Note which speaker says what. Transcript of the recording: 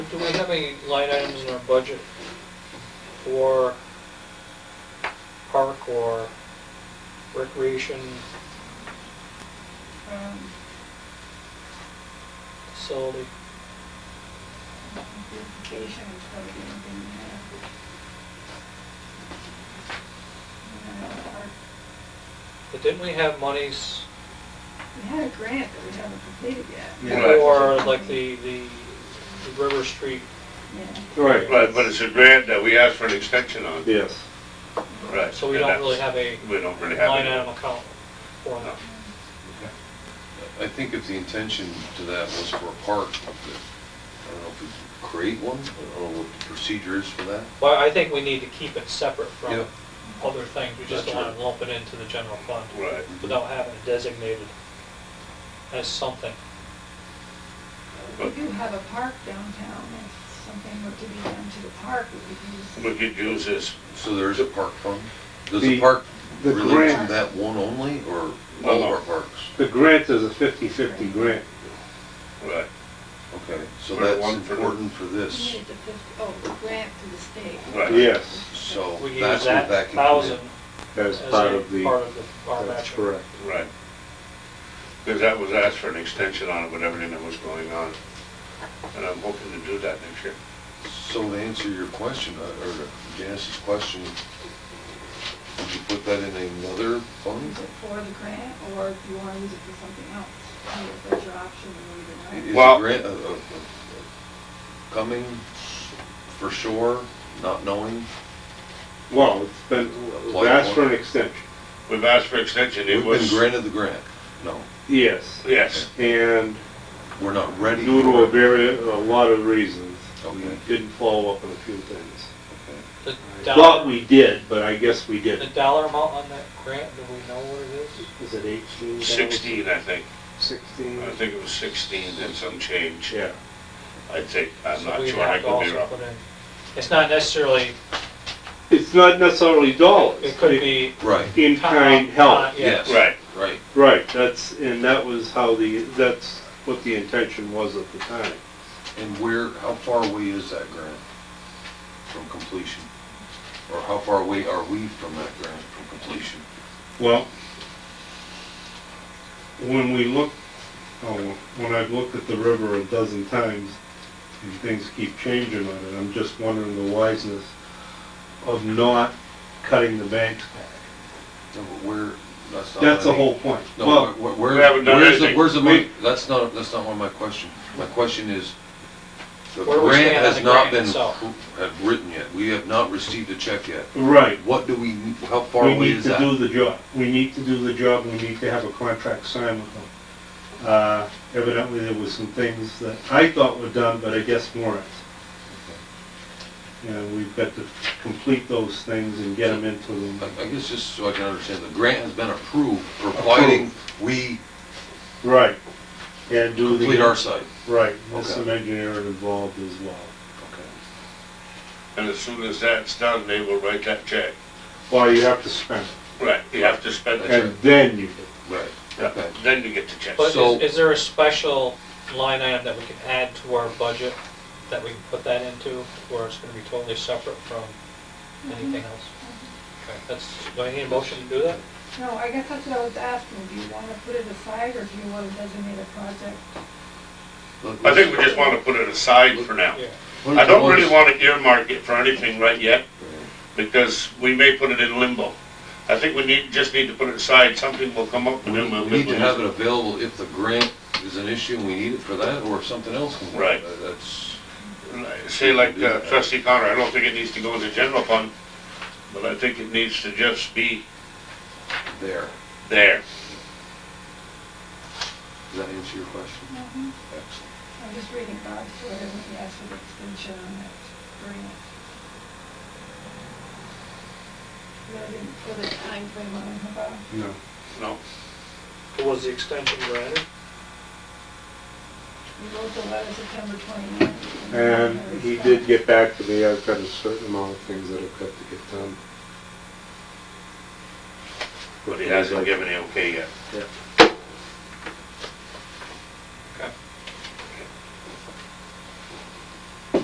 Speaker 1: we have any line items in our budget for park or recreation
Speaker 2: Um,
Speaker 1: facility?
Speaker 2: beautification is probably gonna be in there. You know, our-
Speaker 1: But didn't we have monies
Speaker 2: We had a grant that we haven't completed yet.
Speaker 3: Yeah.
Speaker 1: for like the, the the River Street?
Speaker 2: Yeah.
Speaker 3: Right.
Speaker 4: But, but it's a grant that we asked for an extension on.
Speaker 3: Yes.
Speaker 4: Right.
Speaker 1: So we
Speaker 4: and
Speaker 1: don't really
Speaker 4: that's-
Speaker 1: have a
Speaker 4: We don't really have.
Speaker 1: line
Speaker 4: any.
Speaker 1: item account for that.
Speaker 5: I think if the intention to that was for a park, that- I don't know if we create one, I don't know what the procedure is for that.
Speaker 1: But I think we need to keep it separate from
Speaker 5: Yeah.
Speaker 1: other things. We just don't
Speaker 5: That's
Speaker 1: want to
Speaker 5: right.
Speaker 1: lump it into the general fund
Speaker 4: Right.
Speaker 1: without having it designated as something.
Speaker 2: We
Speaker 4: But
Speaker 2: do have a park downtown, if something were to be done to the park, we could use.
Speaker 4: we could use this,
Speaker 5: So there is a park fund? Does the
Speaker 3: The-
Speaker 5: park
Speaker 3: the
Speaker 5: relate to
Speaker 3: grant-
Speaker 5: that one only, or
Speaker 4: No,
Speaker 5: all
Speaker 4: no.
Speaker 5: of our parks?
Speaker 3: The grant is a fifty-fifty grant.
Speaker 4: right,
Speaker 5: Okay, so
Speaker 4: For the
Speaker 5: that's
Speaker 4: one for the-
Speaker 5: important for
Speaker 2: We
Speaker 5: this,
Speaker 2: needed the fifty, oh, the grant to the state.
Speaker 4: right.
Speaker 3: Yes,
Speaker 5: so
Speaker 1: We use
Speaker 5: that's what
Speaker 1: that
Speaker 5: that can come
Speaker 1: thousand
Speaker 5: in.
Speaker 3: as
Speaker 1: as a
Speaker 3: part of the,
Speaker 1: part of the- our
Speaker 3: that's
Speaker 1: matching.
Speaker 3: correct.
Speaker 4: Right. Because that was asked for an extension on it with everything that was going on. And I'm hoping to do that next year.
Speaker 5: So to answer your question, uh, or Janice's question, would you put that in another fund?
Speaker 2: Use it for the grant, or if you wanna use it for something else, I mean, if there's your option,
Speaker 5: Is
Speaker 2: then
Speaker 5: the
Speaker 2: we
Speaker 4: Well-
Speaker 5: grant uh, uh, uh, coming for sure, not knowing?
Speaker 3: Well, it's been,
Speaker 5: Apply
Speaker 3: that's
Speaker 5: for
Speaker 3: for
Speaker 5: it.
Speaker 3: an extension.
Speaker 4: We've asked for extension, it
Speaker 5: We've been
Speaker 4: was,
Speaker 5: granted the grant, no,
Speaker 3: Yes,
Speaker 4: yes,
Speaker 3: and
Speaker 5: we're not ready.
Speaker 3: due to a
Speaker 5: for it.
Speaker 3: very, a lot of reasons, we
Speaker 5: Okay.
Speaker 3: didn't follow up on a few things.
Speaker 1: The
Speaker 3: Thought
Speaker 1: dollar,
Speaker 3: we did, but I guess we
Speaker 1: the
Speaker 3: didn't.
Speaker 1: dollar amount on that grant, do we know what it is?
Speaker 3: Is it eighteen dollars?
Speaker 4: sixteen, I think.
Speaker 3: Sixteen?
Speaker 4: I think it was sixteen and some change,
Speaker 3: Yeah,
Speaker 4: I think. I'm
Speaker 1: So
Speaker 4: not
Speaker 1: we'd
Speaker 4: sure, I
Speaker 1: have to
Speaker 4: could be
Speaker 1: also
Speaker 4: wrong.
Speaker 1: put in- It's not necessarily,
Speaker 3: it's not necessarily dollars.
Speaker 1: it could be.
Speaker 5: Right,
Speaker 3: In-kind help,
Speaker 1: Uh,
Speaker 5: yes.
Speaker 4: Right.
Speaker 5: Right,
Speaker 3: right, that's, and that was how the, that's what the intention was at the time.
Speaker 5: and where, how far away is that grant from completion? Or how far away are we from that grant from completion?
Speaker 3: Well, when we look, oh, when I've looked at the river a dozen times, and things keep changing on it, I'm just wondering the wiseness of not cutting the banks back.
Speaker 5: No, but where, that's not.
Speaker 3: That's the
Speaker 5: money.
Speaker 3: whole point.
Speaker 5: No,
Speaker 3: Well,
Speaker 5: where,
Speaker 4: we
Speaker 5: where,
Speaker 4: haven't done
Speaker 5: where's the,
Speaker 4: anything.
Speaker 5: where's the
Speaker 3: We-
Speaker 5: money? That's not, that's not one of my question. My question is, the
Speaker 1: Where we
Speaker 5: grant
Speaker 1: stand on
Speaker 5: has
Speaker 1: the
Speaker 5: not
Speaker 1: grant
Speaker 5: been,
Speaker 1: itself.
Speaker 5: pr- have written yet. We have not received a check yet.
Speaker 3: right,
Speaker 5: What do we, need- how far
Speaker 3: we
Speaker 5: away
Speaker 3: need
Speaker 5: is
Speaker 3: to do
Speaker 5: that?
Speaker 3: the job, we need to do the job, we need to have a contract signed with them. Uh, evidently, there was some things that I thought were done, but I guess weren't. And we've got to complete those things and get them into
Speaker 5: I,
Speaker 3: them.
Speaker 5: I guess just so I can understand, the grant has been approved, providing we
Speaker 3: Right. And do the.
Speaker 5: complete our site.
Speaker 3: Right, there's
Speaker 5: Okay.
Speaker 3: some engineering involved as well.
Speaker 5: Okay.
Speaker 4: And as soon as that's done, they will write that check.
Speaker 3: Well, you have to spend it,
Speaker 4: Right, you have to spend
Speaker 5: That's
Speaker 4: it.
Speaker 3: and then you do.
Speaker 5: Right, okay.
Speaker 4: Then you get the check.
Speaker 1: But
Speaker 5: So-
Speaker 1: is, is there a special line item that we can add to our budget that we can put that into, where it's gonna be totally separate from anything else? Okay, that's, do I need a motion to do that?
Speaker 2: do. No, I guess that's what I was asking, do you wanna put it aside, or do you wanna designate a project?
Speaker 5: Let-
Speaker 4: I think we just want to put it aside for now.
Speaker 1: Yeah.
Speaker 5: let's-
Speaker 4: I don't really
Speaker 5: let's-
Speaker 4: want to earmark it for anything right yet, because we may put it in limbo. I think we need, just need to put it aside, something will come up
Speaker 5: We
Speaker 4: and then we'll.
Speaker 5: need to have it available if the grant is an issue and we need it for that, or if something else comes up.
Speaker 4: Right.
Speaker 5: Uh, That's,
Speaker 4: Say like uh, trustee Connor, I don't think it needs to go in the general fund, but I think it needs to just be
Speaker 5: there.
Speaker 4: there.
Speaker 5: Does that answer your question? Excellent.
Speaker 2: I'm just reading Bob's letter, and he asked for the extension on that grant. No, I didn't put a timeframe on it, Bob.
Speaker 3: No.
Speaker 4: No,
Speaker 1: Was the extension granted?
Speaker 2: We wrote the letter September 29th.
Speaker 3: And he did get back to me, I've got a certain amount of things that I've got to get done.
Speaker 4: but he hasn't given the okay yet.
Speaker 3: Yeah.